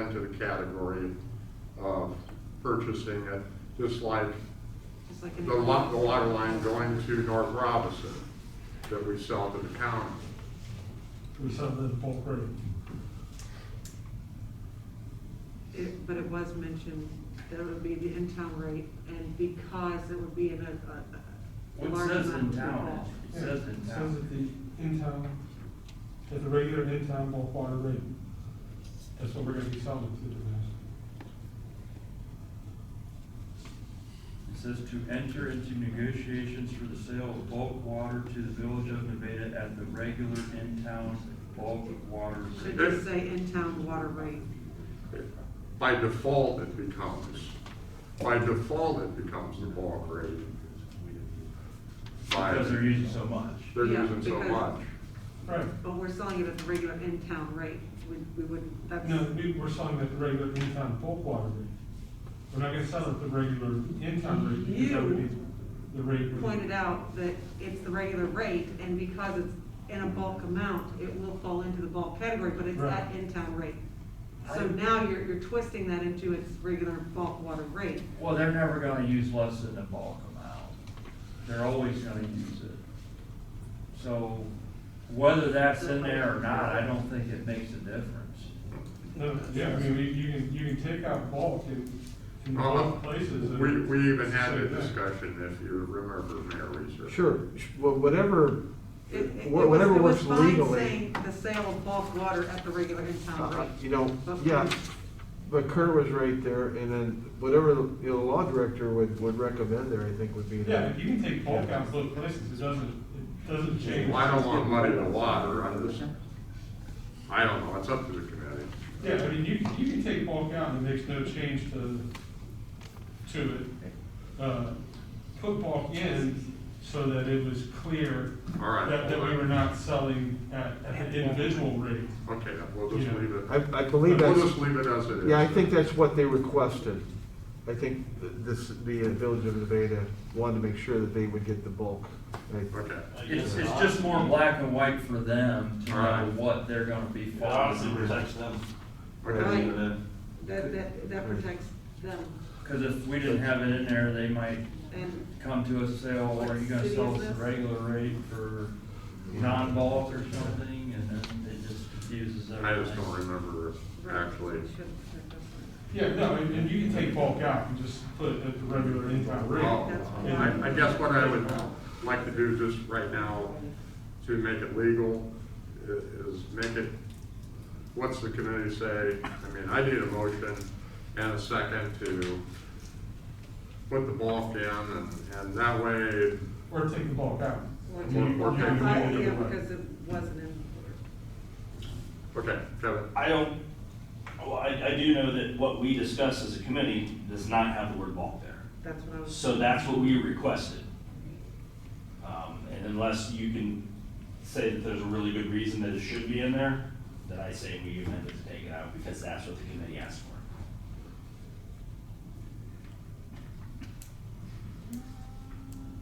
into the category of purchasing it, just like Just like in the lot, the water line going to North Robinson that we sell to the county. We sell it at bulk rate. It- But it was mentioned that it would be the in-town rate, and because it would be in a- a, a Well, large it says amount in of town, people. it It says in Says at town. the in-town, at the regular in-town bulk water rate. That's what we're gonna be selling to the rest. It says to enter into negotiations for the sale of bulk water to the village of Nevada at the regular in-town bulk water Should rate. just say in-town water rate. By default, it becomes, by default, it becomes the ball grade. By- Because they're using so much. They're Yeah, using so because- much. Right. But we're selling it at the regular in-town rate, we, we wouldn't, that's. No, we, we're selling at the regular in-town bulk water rate. We're not gonna sell it at the regular in-town rate because that would be You the rate. we- Pointed out that it's the regular rate, and because it's in a bulk amount, it will fall into the bulk category, but it's Right. at in-town rate. So I- now you're, you're twisting that into its regular bulk water rate. Well, they're never gonna use less than the bulk amount. They're always gonna use it. So whether that's in there or not, I don't think it makes a difference. No, yeah, I mean, we- you can, you can take out bulk in, in Well, both places. and Uh-huh. We, we even it's the had a same thing. discussion, if you remember, Mayor Reeser. Sure, Well, whatever, It- it- it was- whatever it was works fine legally. saying The sale of bulk water at the regular in-town Uh, rate. You know, But- yeah, but Kurt was right there, and then whatever, you know, the law director would, would recommend there, I think would be. the- Yeah, if you can take bulk out both places, it doesn't, it doesn't change. I don't want muddy the water, I'm just, I don't know, it's up to the committee. Yeah, I mean, you, you can take bulk out and it makes no change to, to it. Uh, Put bulk in so that it was clear All right. that, that we were not selling at, at the individual rate. Okay, we'll just leave it. I, I believe that's. We'll just leave it as it is. Yeah, I think that's what they requested. I think th- this, the uh, Village of Nevada wanted to make sure that they would get the bulk. And I- Okay. It's, it's just more black and white for them to know Alright. what they're gonna be It following. Obviously protects them. Okay. Right. Uh, That, that, that protects them, Cause if we didn't have it in there, they might and come to us and say, oh, well, are you gonna sell us the regular rate for non-bulk or something? And then it just confuses I everything. just don't remember actually. It should protect us. Yeah, no, and, and you can take bulk out and just put it at the regular in-town Well, rate. Oh, I, I guess what I would like to do just right now to make it legal i- is make it, what's the committee say? I mean, I need a motion and a second to put the bulk in and, and that way, Or take the bulk out. Or You- take- you Or- or can take- do it either Yeah, way. because it wasn't in. okay, Kevin. I don't, well, I, I do know that what we discussed as a committee does not have the word bulk there. That's what I was. So that's what we requested. Um, and unless you can say that there's a really good reason that it should be in there, then I say we amend it to take it out because that's what the committee asked for.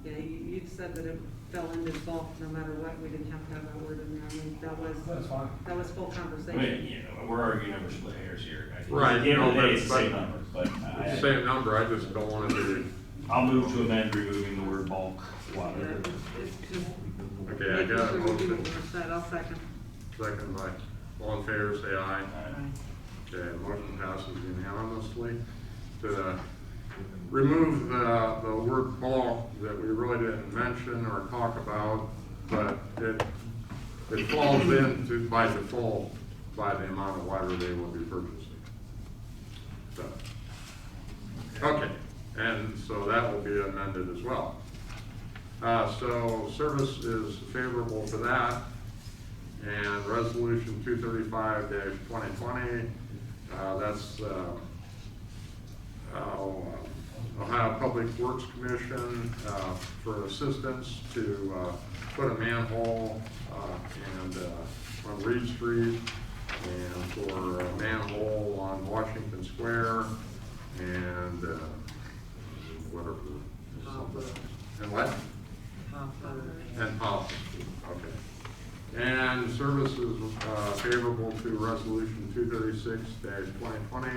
Yeah, you, you said that it fell into bulk no matter what, we didn't have to have that word in there, I mean, that was, That's fine. that was full I mean, conversation. you know, we're arguing over split hairs here. I think Right, At the end of no, the but- day, it's the same but- number, but It's I, the same number, I just don't wanna be, I'll move to amend removing the word bulk water. It's- it's just okay, I making got a sure we do motion. what we're said. I'll second. Second by, all in favor, say aye. Uh, Okay, motion passes unanimously to remove the, the word bulk that we really didn't mention or talk about, but it, it falls into by default by the amount of water they will be purchasing. So, okay, and so that will be amended as well. Uh, so service is favorable for that. And resolution two thirty-five twenty twenty, uh, that's, uh, uh, Ohio Public Works Commission, uh, for assistance to, uh, put a manhole, uh, and, uh, on Reed Street, and for a manhole on Washington Square, and, uh, whatever. And what? I'll second. And policy, okay. And services, uh, favorable to resolution two thirty-six twenty twenty